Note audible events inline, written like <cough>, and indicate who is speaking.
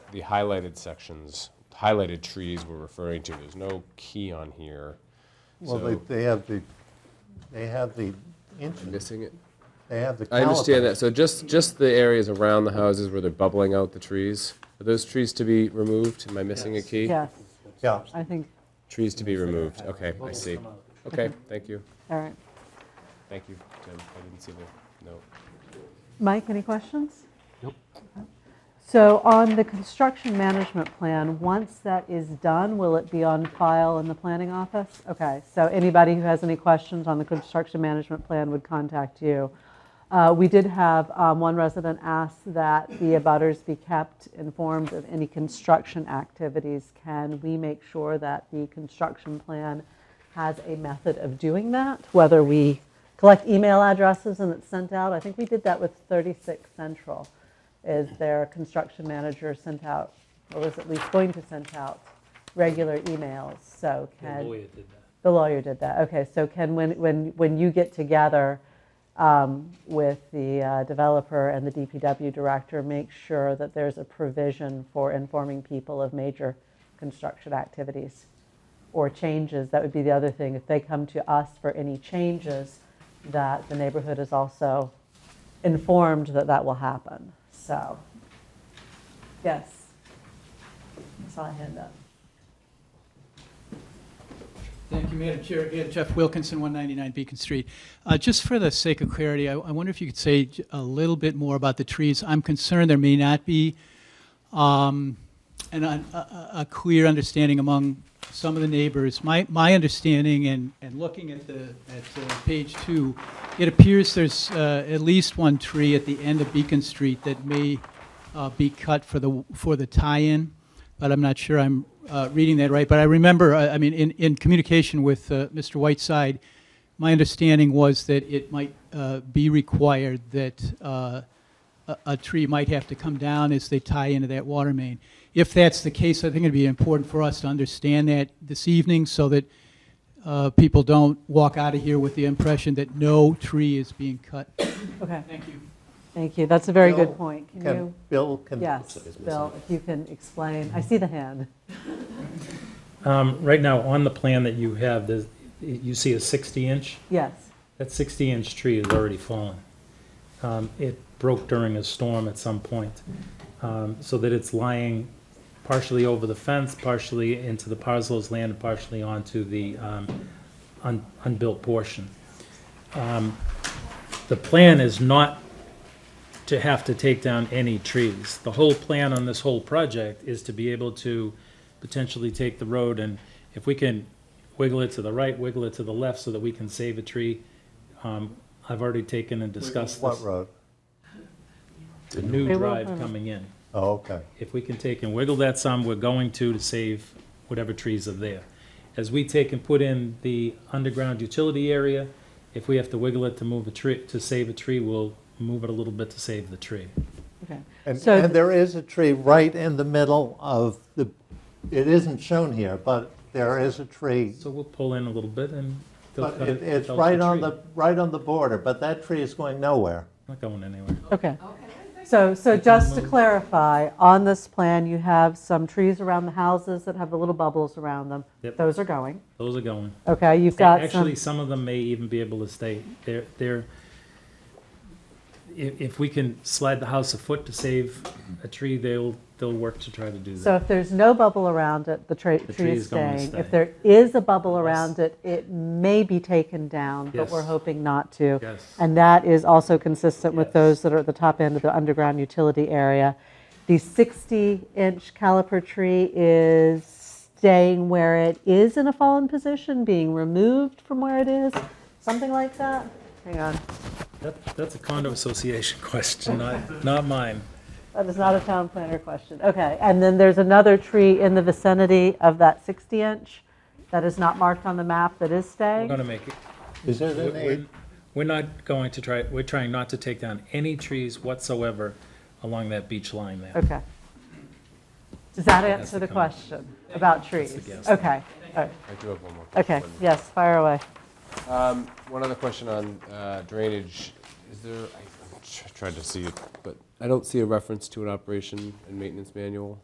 Speaker 1: the highlighted sections, highlighted trees we're referring to, there's no key on here.
Speaker 2: Well, they,
Speaker 1: So-
Speaker 2: they have the, they have the inches,
Speaker 1: Missing it?
Speaker 2: they have the
Speaker 1: I understand that,
Speaker 2: calipers.
Speaker 1: so just, just the areas around the houses where they're bubbling out the trees, are those trees to be removed? Am I missing a key?
Speaker 3: Yes,
Speaker 2: Yeah,
Speaker 3: I think,
Speaker 1: Trees to be removed, okay, I see. Okay, thank you,
Speaker 3: all right.
Speaker 1: thank you, Tim, I didn't see the note.
Speaker 3: Mike, any questions? So on the construction management plan, once that is done, will it be on file in the planning office? Okay, so anybody who has any questions on the construction management plan would contact you. Uh, We did have um, one resident ask that the abutters be kept informed of any construction activities. Can we make sure that the construction plan has a method of doing that? Whether we collect email addresses and it's sent out? I think we did that with 36 Central is their construction manager sent out, or was at least going to send out, regular emails, so
Speaker 4: The
Speaker 3: can.
Speaker 4: lawyer did that.
Speaker 3: The lawyer did that, okay, so Ken, when, when, when you get together um, with the uh, developer and the DPW director, make sure that there's a provision for informing people of major construction activities or changes, that would be the other thing, if they come to us for any changes, that the neighborhood is also informed that that will happen, so. Yes. I saw a hand up.
Speaker 5: Thank you, Madam Chair. Again, Jeff Wilkinson, 199 Beacon Street. Uh, Just for the sake of clarity, I I wonder if you could say j- a little bit more about the trees. I'm concerned there may not be um, an un- a a- a clear understanding among some of the neighbors. My my understanding, and and looking at the, at uh, page two, it appears there's uh, at least one tree at the end of Beacon Street that may uh, be cut for the, for the tie-in, but I'm not sure I'm uh, reading that right. But I remember, I I mean, in, in communication with uh, Mr. Whiteside, my understanding was that it might uh, be required that uh, a, a tree might have to come down as they tie into that water main. If that's the case, I think it'd be important for us to understand that this evening so that uh, people don't walk out of here with the impression that no tree is being cut.
Speaker 3: Okay.
Speaker 5: Thank you.
Speaker 3: Thank you, that's a very
Speaker 2: Bill,
Speaker 3: good point. Can
Speaker 2: Can-
Speaker 3: you,
Speaker 2: Bill can.
Speaker 3: yes, Bill, if you can explain, I see the hand.
Speaker 4: Um, Right now, on the plan that you have, there's- you see a 60-inch?
Speaker 3: Yes,
Speaker 4: That 60-inch tree is already fallen. Um, It broke during a storm at some point, um, so that it's lying partially over the fence, partially into the parcel's land, and partially onto the um, un- unbuilt portion. Um, The plan is not to have to take down any trees. The whole plan on this whole project is to be able to potentially take the road, and if we can wiggle it to the right, wiggle it to the left, so that we can save a tree, um, I've already taken and discussed
Speaker 2: What
Speaker 4: this.
Speaker 2: road?
Speaker 4: The new
Speaker 3: They will
Speaker 4: drive
Speaker 3: permit.
Speaker 4: coming in.
Speaker 2: Oh, okay.
Speaker 4: If we can take and wiggle that some, we're going to to save whatever trees are there. As we take and put in the underground utility area, if we have to wiggle it to move a tree, to save a tree, we'll move it a little bit to save the tree.
Speaker 3: okay.
Speaker 2: And,
Speaker 3: So
Speaker 2: and
Speaker 3: th-
Speaker 2: there is a tree right in the middle of the, it isn't shown here, but there is a tree.
Speaker 4: So we'll pull in a little bit and they'll
Speaker 2: But
Speaker 4: cut
Speaker 2: it,
Speaker 4: it.
Speaker 2: it's
Speaker 4: without
Speaker 2: right on
Speaker 4: tree.
Speaker 2: the, right on the border, but that tree is going nowhere.
Speaker 4: Not going anywhere.
Speaker 3: Okay. So, so just to clarify, on this plan, you have some trees around the houses that have the little bubbles around them.
Speaker 4: Yep.
Speaker 3: Those are going.
Speaker 4: Those are going.
Speaker 3: Okay, you've got some,
Speaker 4: Actually, some of them may even be able to stay. They're, they're, if, if we can slide the house a foot to save a tree, they'll, they'll work to try to do
Speaker 3: so
Speaker 4: that.
Speaker 3: if there's no bubble around it, the tra-
Speaker 4: The
Speaker 3: tree is
Speaker 4: going to
Speaker 3: staying.
Speaker 4: stay.
Speaker 3: If there is a bubble
Speaker 4: Unless-
Speaker 3: around it, it may be taken down, but
Speaker 4: Yes.
Speaker 3: we're hoping not to.
Speaker 4: Yes.
Speaker 3: And that is also consistent with
Speaker 4: Yes.
Speaker 3: those that are at the top end of the underground utility area. The 60-inch caliper tree is staying where it is in a fallen position, being removed from where it is, something like that? Hang on,
Speaker 4: That, that's a condo association <laughs> question, not, not mine.
Speaker 3: that is Oh, not a town planner question. Okay, and then there's another tree in the vicinity of that 60-inch that is not marked on the map that is
Speaker 4: We're
Speaker 3: staying?
Speaker 4: gonna make it,
Speaker 2: Is there an
Speaker 4: we're,
Speaker 2: age?
Speaker 4: we're not going to try, we're trying not to take down any trees whatsoever along that beach line there.
Speaker 3: Okay. Does that
Speaker 4: That's
Speaker 3: answer
Speaker 4: the
Speaker 3: the
Speaker 4: comment.
Speaker 3: question about trees?
Speaker 4: guess.
Speaker 3: Okay, all right.
Speaker 1: I do have one more.
Speaker 3: Okay,
Speaker 1: question.
Speaker 3: yes, fire away.
Speaker 1: Um, One other question on uh, drainage. Is there, I I'm tr- tried to see it, but I don't see a reference to an operation and maintenance manual.